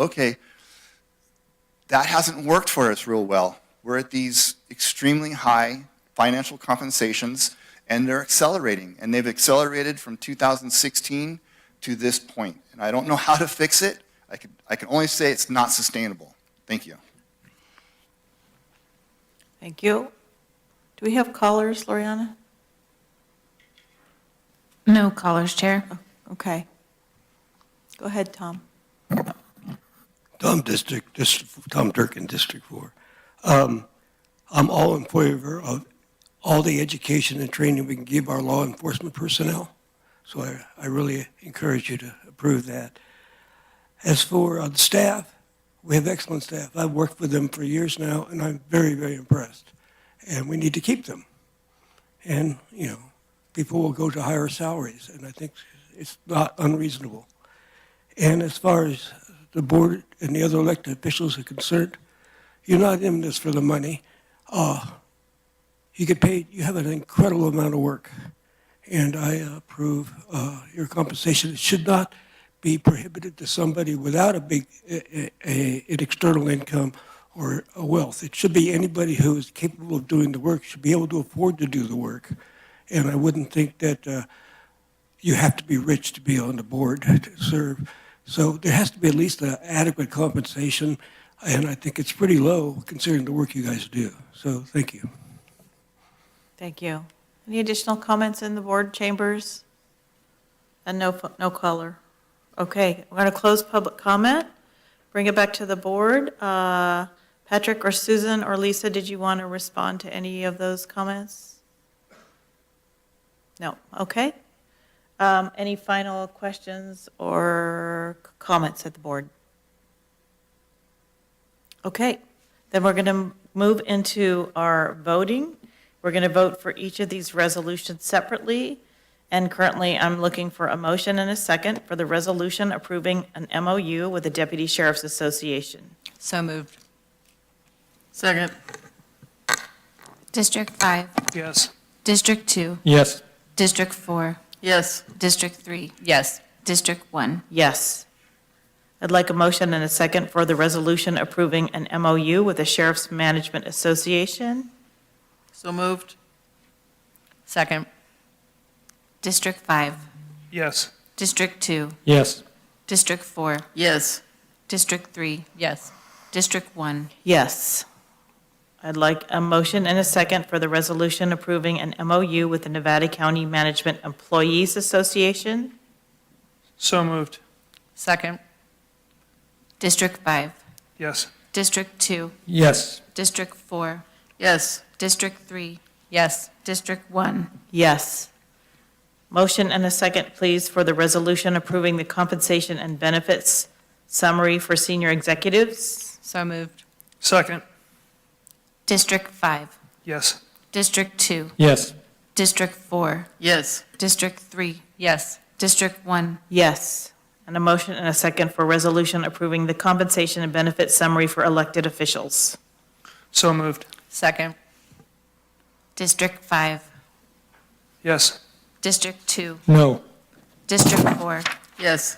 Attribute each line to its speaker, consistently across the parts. Speaker 1: okay, that hasn't worked for us real well. We're at these extremely high financial compensations, and they're accelerating. And they've accelerated from 2016 to this point. And I don't know how to fix it. I can, I can only say it's not sustainable. Thank you.
Speaker 2: Thank you. Do we have callers, Loriana?
Speaker 3: No callers, Chair.
Speaker 2: Oh, Okay. Go ahead, Tom.
Speaker 4: Tom District, Dis- Tom Durkin, District 4. Um, I'm all in favor of all the education and training we can give our law enforcement personnel. So I, I really encourage you to approve that. As for uh, the staff, we have excellent staff. I've worked with them for years now, and I'm very, very impressed. And we need to keep them. And, you know, people will go to higher salaries, and I think it's not unreasonable. And as far as the board and the other elected officials are concerned, you're not in this for the money. Uh, you get paid, you have an incredible amount of work. And I approve uh, your compensation. It should not be prohibited to somebody without a big, a, a, an external income or a wealth. It should be anybody who is capable of doing the work, should be able to afford to do the work. And I wouldn't think that uh, you have to be rich to be on the board to serve. So there has to be at least an adequate compensation, and I think it's pretty low considering the work you guys do. So thank you.
Speaker 2: Thank you. Any additional comments in the board chambers? And no, fo- no caller. Okay, we're going to close public comment, bring it back to the board. Uh, Patrick or Susan or Lisa, did you want to respond to any of those comments? No, okay. Um, Any final questions or c- comments at the board? Okay, then we're going to move into our voting. We're going to vote for each of these resolutions separately. And currently, I'm looking for a motion and a second for the resolution approving an MOU with the Deputy Sheriff's Association.
Speaker 5: So moved.
Speaker 6: Second.
Speaker 3: District 5,
Speaker 6: Yes.
Speaker 3: District 2,
Speaker 7: Yes.
Speaker 3: District 4,
Speaker 6: Yes.
Speaker 3: District 3,
Speaker 5: Yes.
Speaker 3: District 1.
Speaker 2: Yes. I'd like a motion and a second for the resolution approving an MOU with the Sheriff's Management Association.
Speaker 6: So moved.
Speaker 5: Second.
Speaker 3: District 5,
Speaker 6: Yes.
Speaker 3: District 2,
Speaker 7: Yes.
Speaker 3: District 4,
Speaker 6: Yes.
Speaker 3: District 3,
Speaker 5: Yes.
Speaker 3: District 1.
Speaker 2: Yes. I'd like a motion and a second for the resolution approving an MOU with the Nevada County Management Employees Association.
Speaker 6: So moved.
Speaker 5: Second.
Speaker 3: District 5,
Speaker 6: Yes.
Speaker 3: District 2,
Speaker 7: Yes.
Speaker 3: District 4,
Speaker 6: Yes.
Speaker 3: District 3,
Speaker 5: Yes.
Speaker 3: District 1.
Speaker 2: Yes. Motion and a second, please, for the resolution approving the compensation and benefits summary for senior executives.
Speaker 5: So moved.
Speaker 6: Second.
Speaker 3: District 5,
Speaker 6: Yes.
Speaker 3: District 2,
Speaker 7: Yes.
Speaker 3: District 4,
Speaker 6: Yes.
Speaker 3: District 3,
Speaker 5: Yes.
Speaker 3: District 1.
Speaker 2: Yes. And a motion and a second for resolution approving the compensation and benefits summary for elected officials.
Speaker 6: So moved.
Speaker 5: Second.
Speaker 3: District 5,
Speaker 6: Yes.
Speaker 3: District 2,
Speaker 7: No.
Speaker 3: District 4,
Speaker 6: Yes.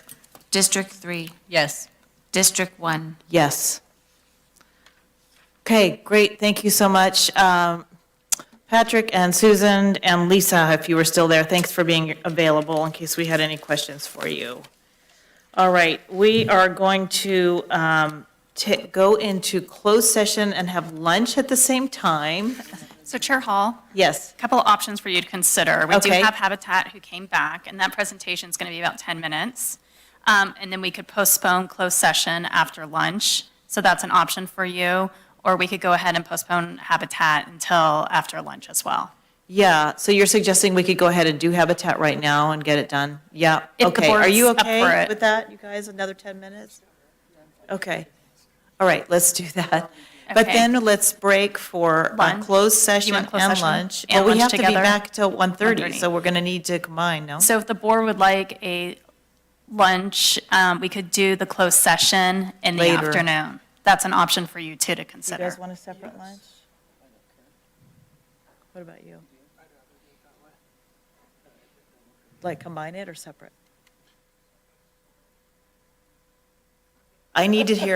Speaker 3: District 3,
Speaker 5: Yes.
Speaker 3: District 1.
Speaker 2: Yes. Okay, great, thank you so much. Um, Patrick and Susan and Lisa, if you were still there, thanks for being available in case we had any questions for you. All right, we are going to um, ta- go into closed session and have lunch at the same time.
Speaker 8: So Chair Hall,
Speaker 2: Yes,
Speaker 8: a couple of options for you to consider. We do
Speaker 2: Okay.
Speaker 8: have Habitat who came back, and that presentation is going to be about 10 minutes. Um, And then we could postpone closed session after lunch, so that's an option for you. Or we could go ahead and postpone Habitat until after lunch as well.
Speaker 2: yeah, so you're suggesting we could go ahead and do Habitat right now and get it done? Yeah,
Speaker 8: If the
Speaker 2: okay. Are you
Speaker 8: board's up for
Speaker 2: okay
Speaker 8: it.
Speaker 2: with that, you guys, another 10 minutes? Okay, all right, let's do that. But
Speaker 8: Okay.
Speaker 2: then let's break for uh,
Speaker 8: Lunch?
Speaker 2: closed session
Speaker 8: want
Speaker 2: and
Speaker 8: closed session
Speaker 2: lunch. Well,
Speaker 8: and
Speaker 2: we
Speaker 8: lunch
Speaker 2: have to be
Speaker 8: together?
Speaker 2: back till 1:30,
Speaker 8: 1:30.
Speaker 2: so we're going to need to combine, no?
Speaker 8: So if the board would like a lunch, um, we could do the closed session in the
Speaker 2: Later.
Speaker 8: afternoon. That's an option for you too to
Speaker 2: You
Speaker 8: consider.
Speaker 2: guys want a separate lunch? What about you? Like combine it or separate? I need to hear